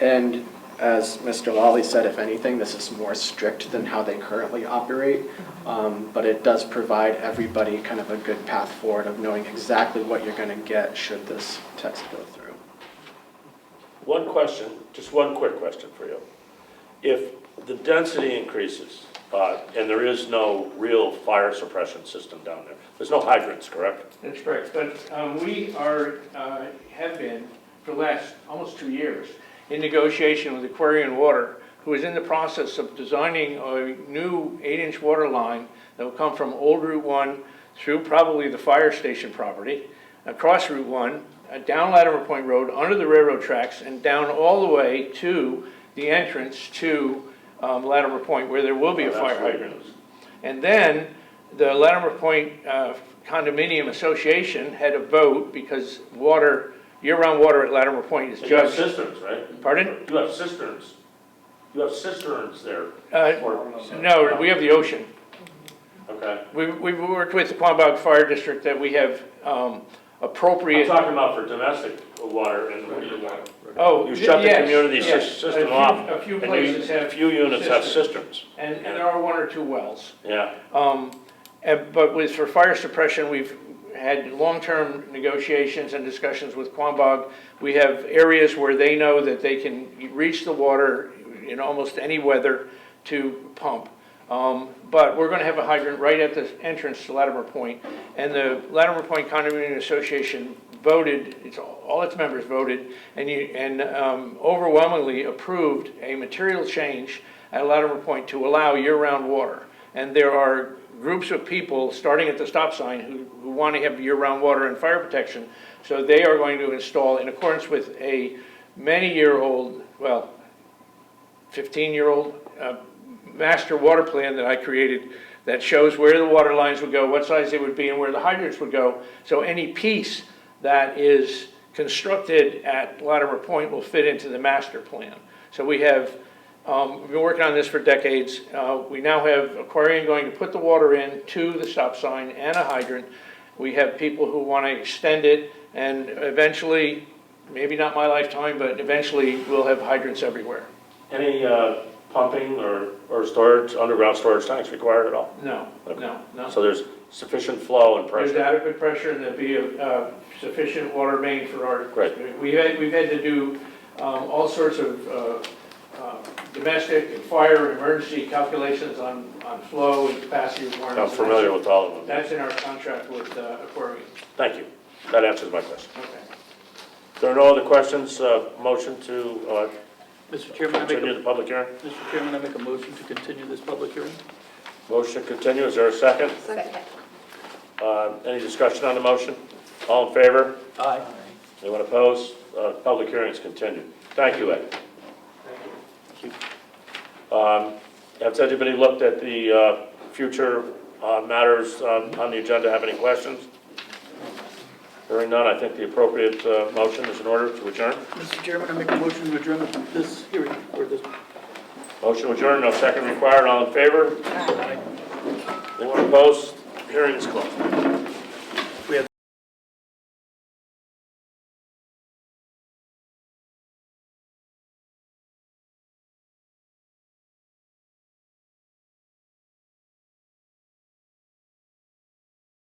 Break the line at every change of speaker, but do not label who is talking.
And as Mr. Lally said, if anything, this is more strict than how they currently operate. Um, But it does provide everybody kind of a good path forward of knowing exactly what you're going to get should this text go through.
One question, just one quick question for you. If the density increases, uh, and there is no real fire suppression system down there, there's no hydrants, correct?
That's correct, but um, we are, uh, have been, for the last almost two years, in negotiation with Aquarian Water, who is in the process of designing a new eight-inch water line that will come from Old Route 1 through probably the fire station property, across Route 1, uh, down Latimer Point Road, under the railroad tracks, and down all the way to the entrance to um, Latimer Point, where there will be a
That's
fire
what it
hydrant.
is.
And then the Latimer Point uh, Condominium Association had a vote because water, year-round water at Latimer Point is
And You have
judged.
cisterns, right?
Pardon?
You have cisterns. You have cisterns there.
Uh,
for-
No, we have the ocean.
Okay.
We- We've worked with the Quambog Fire District that we have um,
I'm
appropriate.
talking about for domestic water and the water.
Oh,
You shut the
yes,
community sys-
yes. A
system
few-
off.
A few
and you-
places
A
have,
few units have cisterns,
and and there are one or two wells.
yeah.
Um, and- But with, for fire suppression, we've had long-term negotiations and discussions with Quambog. We have areas where they know that they can reach the water in almost any weather to pump. Um, But we're going to have a hydrant right at the entrance to Latimer Point. And the Latimer Point Condominium Association voted, it's, all all its members voted, and you, and um, overwhelmingly approved a material change at Latimer Point to allow year-round water. And there are groups of people, starting at the stop sign, who, who want to have year-round water and fire protection. So they are going to install, in accordance with a many-year-old, well, 15-year-old uh, master water plan that I created that shows where the water lines would go, what size they would be, and where the hydrants would go. So any piece that is constructed at Latimer Point will fit into the master plan. So we have, um, we've been working on this for decades. Uh, We now have Aquarian going to put the water in to the stop sign and a hydrant. We have people who want to extend it, and eventually, maybe not my lifetime, but eventually, we'll have hydrants everywhere.
Any uh, pumping or, or storage, underground storage tanks required at all?
No, no, no.
So there's sufficient flow and
There's
pressure.
adequate pressure and there'd be a uh, sufficient water main for our.
Great.
We've had, we've had to do um, all sorts of uh, uh, domestic and fire emergency calculations on, on flow and capacity requirements.
I'm familiar with all of them.
That's in our contract with uh, Aquarian.
Thank you. That answers my question.
Okay.
If there are no other questions, uh, motion to uh,
Mr. Chairman, I make
continue
a,
the public hearing?
Mr. Chairman, I make a motion to continue this public hearing.
Motion to continue, is there a second?
Second.
Uh, Any discussion on the motion? All in favor?
Aye.
Anyone opposed? Uh, Public hearing is continued. Thank you, Ed. Um, Has anybody looked at the uh, future uh, matters um, on the agenda, have any questions? Hearing none, I think the appropriate uh, motion is in order to adjourn.
Mr. Chairman, I make a motion to adjourn this hearing, or this,
Motion adjourned, no second required, all in favor? Anyone opposed? Hearing is closed.